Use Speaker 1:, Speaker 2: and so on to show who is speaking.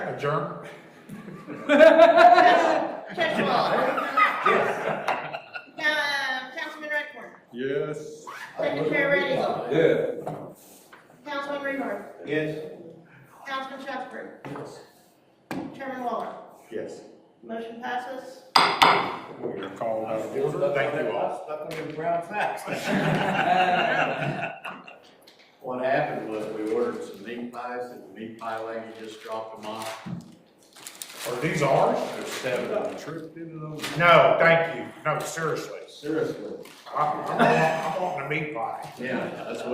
Speaker 1: Adjourn?
Speaker 2: Catchwell. Uh, Councilman Redcorn.
Speaker 1: Yes.
Speaker 2: Secretary Reddy.
Speaker 3: Yeah.
Speaker 2: Councilman Rebar.
Speaker 1: Yes.
Speaker 2: Councilman Shafter. Chairman Waller.
Speaker 1: Yes.
Speaker 2: Motion passes.
Speaker 1: We're called out of order. Thank you all.
Speaker 4: Stuck on your brown facts. What happened was we ordered some meat pies and the meat pie lady just dropped them off.
Speaker 1: Are these ours?
Speaker 4: There's seven of them.
Speaker 1: No, thank you. No, seriously.
Speaker 4: Seriously?
Speaker 1: I, I want, I want the meat pie.
Speaker 4: Yeah, that's what